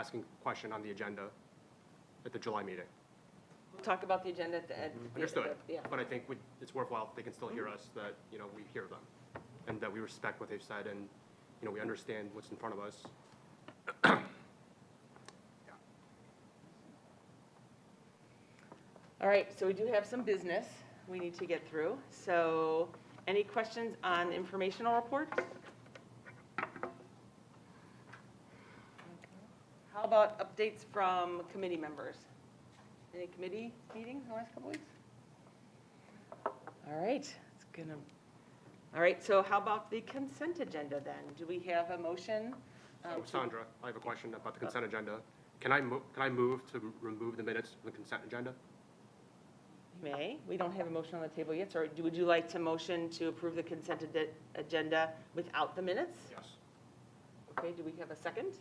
asking question on the agenda at the July meeting. Talk about the agenda at the end. Mm-hmm. Understood. Yeah. But I think we- it's worthwhile, they can still hear us, that, you know, we hear them, and that we respect what they've said, and, you know, we understand what's in front of us. All right, so we do have some business we need to get through. So any questions on informational reports? How about updates from committee members? Any committee meetings in the last couple weeks? All right, it's gonna, all right, so how about the consent agenda then? Do we have a motion? um, So to- Sandra, I have a question about the consent agenda. Can I move, can I move to remove the minutes from the consent agenda? May, we don't have a motion on the table yet, so do- would you like to motion to approve the consent ad- agenda without the minutes? Yes. Okay, do we have a second?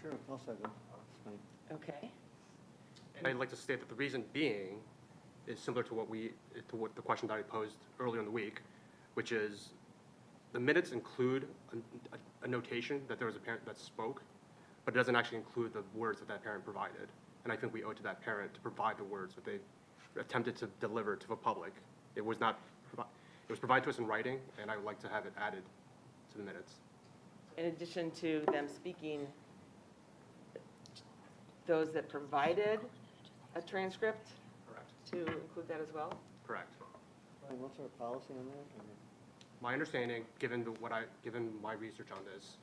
Sure, I'll second. Fine. Okay. And I'd like to state that the reason being is similar to what we, to what the question that I posed earlier in the week, which is the minutes include a- a, a notation that there was a parent that spoke, but it doesn't actually include the words that that parent provided. And I think we owe it to that parent to provide the words that they attempted to deliver to the public. It was not, provi- it was provided to us in writing, and I would like to have it added to the minutes. In addition to them speaking, those that provided a transcript, Correct. to include that as well? Correct. Ryan, what's our policy on that? I mean, My understanding, given the, what I, given my research on this,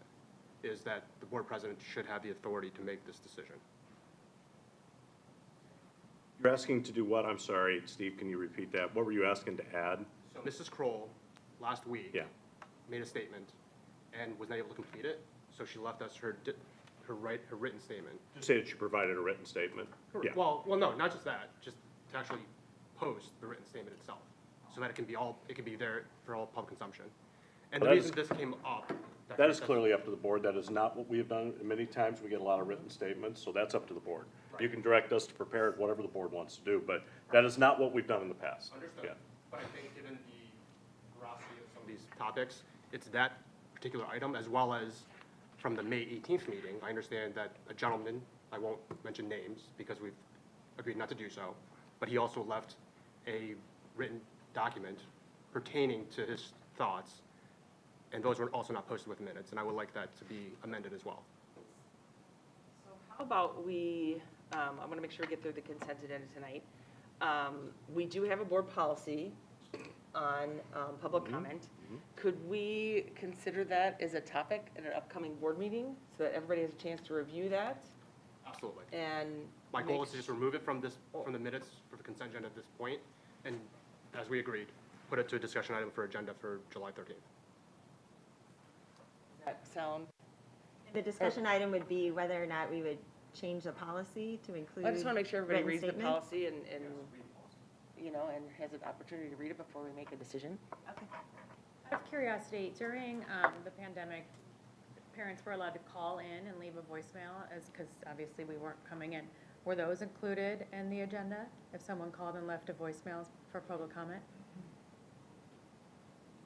is that the board president should have the authority to make this decision. You're asking to do what? I'm sorry, Steve, can you repeat that? What were you asking to add? So Mrs. Kroll, last week. Yeah. Made a statement and was not able to complete it, so she left us her, di- her write, her written statement. Just say that you provided a written statement. Yeah. Well, well, no, not just that, just to actually post the written statement itself, so that it can be all, it can be there for all public consumption. And the Well, that reason this came up. That is clearly up to the board. That is not what we have done. Many times we get a lot of written statements, so that's up to the board. You can direct us to prepare it, whatever the board wants to do, but that is not what we've done in the past. Understood. Yeah. But I think given the veracity of some of these topics, it's that particular item as well as from the May 18th meeting, I understand that a gentleman, I won't mention names because we've agreed not to do so, but he also left a written document pertaining to his thoughts, and those were also not posted with minutes, and I would like that to be amended as well. How about we, um, I want to make sure we get through the consent agenda tonight. Um, We do have a board policy on um, public Mm-hmm. comment. Could we consider that as a topic at an upcoming board meeting so that everybody has a chance to review that Absolutely. and? My goal make- is to just remove it from this, from the minutes for the consent agenda at this point, and as we agreed, put it to a discussion item for agenda for July 13th. Does That sound, The discussion Oh. item would be whether or not we would change the policy to include. I just want to make sure everybody written reads the statement. policy and, and, you know, and has an opportunity to read it before we make a decision. Out of curiosity, during um, the pandemic, parents were allowed to call in and leave a voicemail as, because obviously we weren't coming in. Were those included in the agenda? If someone called and left a voicemail for public comment?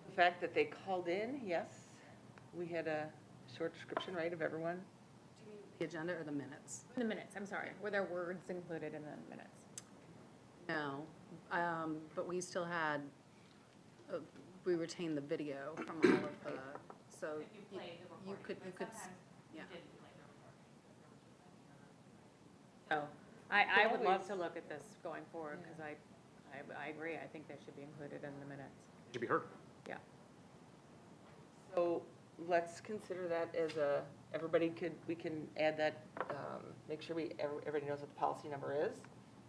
The fact that they called in, yes, we had a short description, right, of everyone? The agenda or the minutes? In the minutes, I'm sorry. Were there words included in the minutes? No, um, but we still had, uh, we retained the video from all of the, so. you could, you could, s- yeah. Oh, I, I Yeah, would we- love to look at this going forward because I, I, I agree. I think they should be included in the minutes. It should be heard. Yeah. So let's consider that as a, everybody could, we can add that, um, make sure we, every- everybody knows what the policy number is.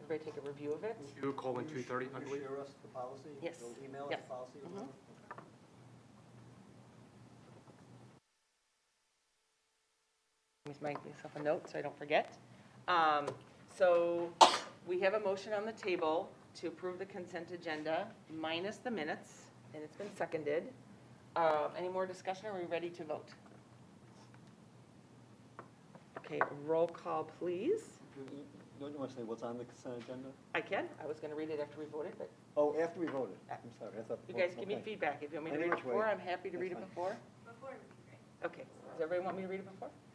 Everybody take a review of it. Two colon You two thirty, sh- I believe. You share us the policy? Yes. You'll email us Yes. the policy? or Mhm. whatever? Let me make myself a note so I don't forget. Um, So we have a motion on the table to approve the consent agenda minus the minutes, and it's been seconded. Uh, Any more discussion? Are we ready to vote? Okay, roll call, please. You- you- Don't you want to say what's on the consent agenda? I can, I was going to read it after we voted, but Oh, after we voted. I'm sorry, I thought. you guys give me okay. feedback. If you want me to Any read it which way. before, I'm happy to That's read it fine. before. Before Okay, does everybody want me to read it before?